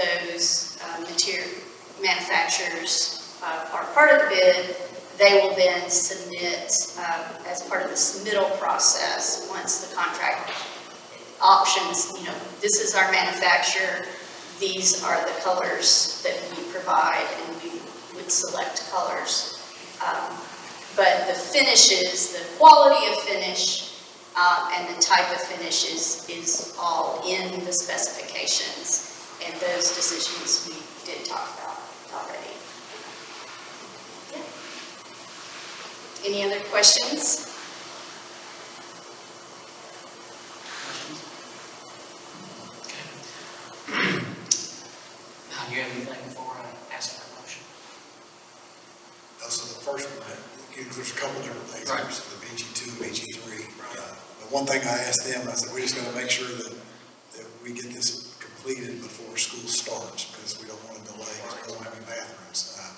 uh, manufacturers uh, are part of the bid, they will then submit, um, as part of the submittal process, once the contract options, you know, this is our manufacturer, these are the colors that we provide, and we would select colors. Um, But the finishes, the quality of finish, uh, and the type of finishes is all in the specifications. And those decisions we did talk about already. Yeah. Any other questions? Now, do you have anything before I ask for a motion? Those are the first one, You know, there's a couple different things, Right. there's the BG two, BG three. Uh, The one thing I asked them, I said, we just gotta make sure that, that we get this completed before school starts, because we don't want to delay, because we don't have any bathrooms, uh,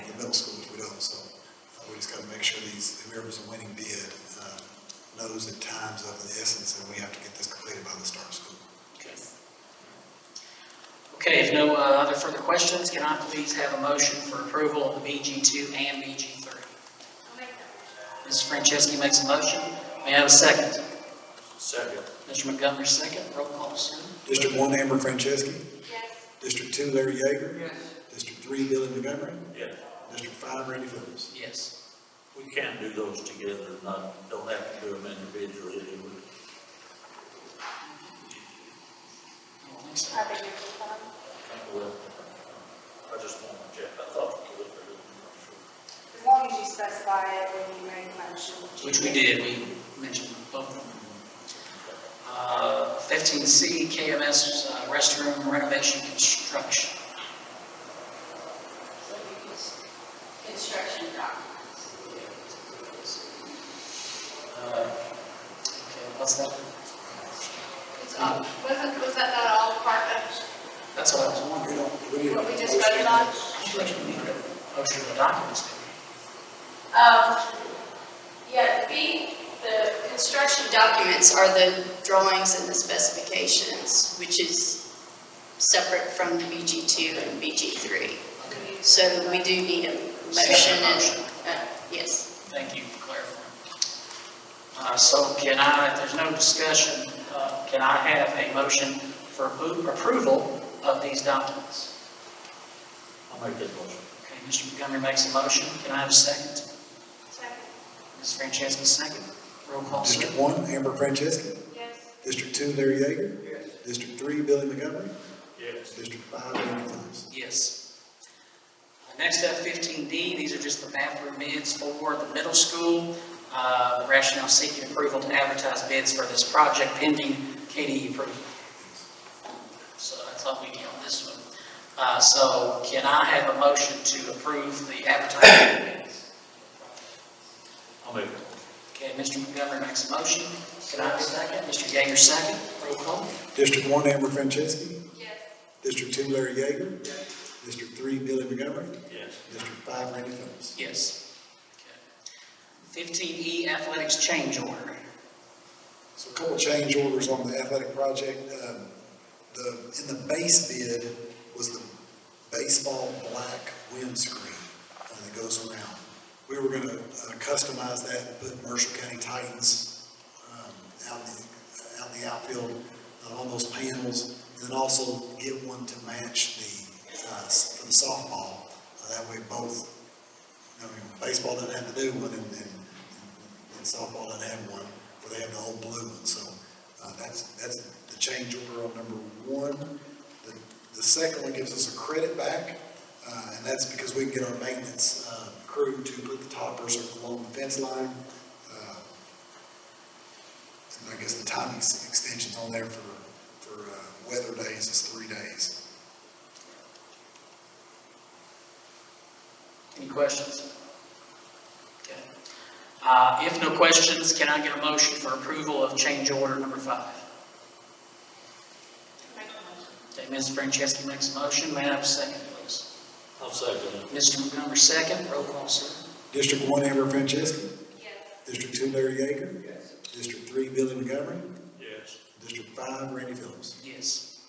in the middle schools, we don't, so uh, we just gotta make sure these, whoever's a winning bid, uh, knows that time's of the essence, and we have to get this completed by the start of school. Okay, if no uh, other further questions, can I please have a motion for approval of the BG2 and BG3? Mrs. Franceschi makes a motion. May I have a second? Second. Mr. Montgomery, second. Roll call, Sue. District one, Amber Franceschi. District two, Larry Yeager. Yes. District three, Billy Montgomery. Yeah, District five, Randy Phillips. Yes. we can do those together, not, don't have to do them individually, do we? I don't think so. Well, I just want to check, I thought we could, but I'm As long as you specify it when you make a motion. Which we did, we mentioned both of them. Uh, 15C, KMS uh, restroom renovation construction. Construction documents. Uh, okay, What's that? Wasn't, was that not all part of That's what I was wondering. We don't, we need. what we just voted on? Actually, we need a motion of documents. Um, yeah, the B, the construction documents are the drawings and the specifications, which is separate from the BG2 and BG3. Okay, So we do need a motion Separate and, motion. uh, yes. Thank you for clarifying. Uh, So can I, if there's no discussion, uh, can I have a motion for appro- approval of these documents? sure. I'll make that motion. Okay, Mr. Montgomery makes a motion. Can I have a second? Ms. Franceschi, second. Roll call, sir. District one, Amber Franceschi. Yes. District two, Larry Yeager. Yes. District three, Billy Montgomery. Yes. District five, Randy Phillips. Yes. Uh, Next up, 15D, these are just the bathroom bids for the middle school. Uh, The Rationale seeking approval to advertise bids for this project pending KDE approval. So that's all we get on this one. Uh, So can I have a motion to approve the advertising bids? I'll make it. Okay, Mr. Montgomery makes a motion. Can I have a second? Mr. Yeager, second. Roll call. District one, Amber Franceschi. Yes. District two, Larry Yeager. District three, Billy Montgomery. Yes. District five, Randy Phillips. Yes. Okay. 15E, athletics change order. So a couple change orders on the athletic project. Um, The, in the base bid was the baseball black windscreen uh, that goes around. We were gonna uh, customize that and put Marshall County Titans um, out in the, out in the outfield uh, on those panels. And then also get one to match the, uh, s- from softball. Uh, That way both I mean, baseball doesn't have to do one, and, and and softball doesn't have one, but they have the old blue one, so, uh, that's, that's the change order on number one. The, the second one gives us a credit back, uh, and that's because we can get our maintenance, uh, crew to put the toppers along the fence line. uh, And I guess the timing ex- extension's on there for, for, uh, weather days is three days. Any questions? Okay. Uh, If no questions, can I get a motion for approval of change order number five? Okay, Ms. Franceschi makes a motion, may I have a second, please? I'll second it. Mr. Montgomery, second, roll call, sir. District one, Amber Franceschi. Yes. District two, Larry Yeager. District three, Billy Montgomery. Yes. District five, Randy Phillips. Yes.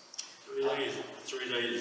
Three days, three days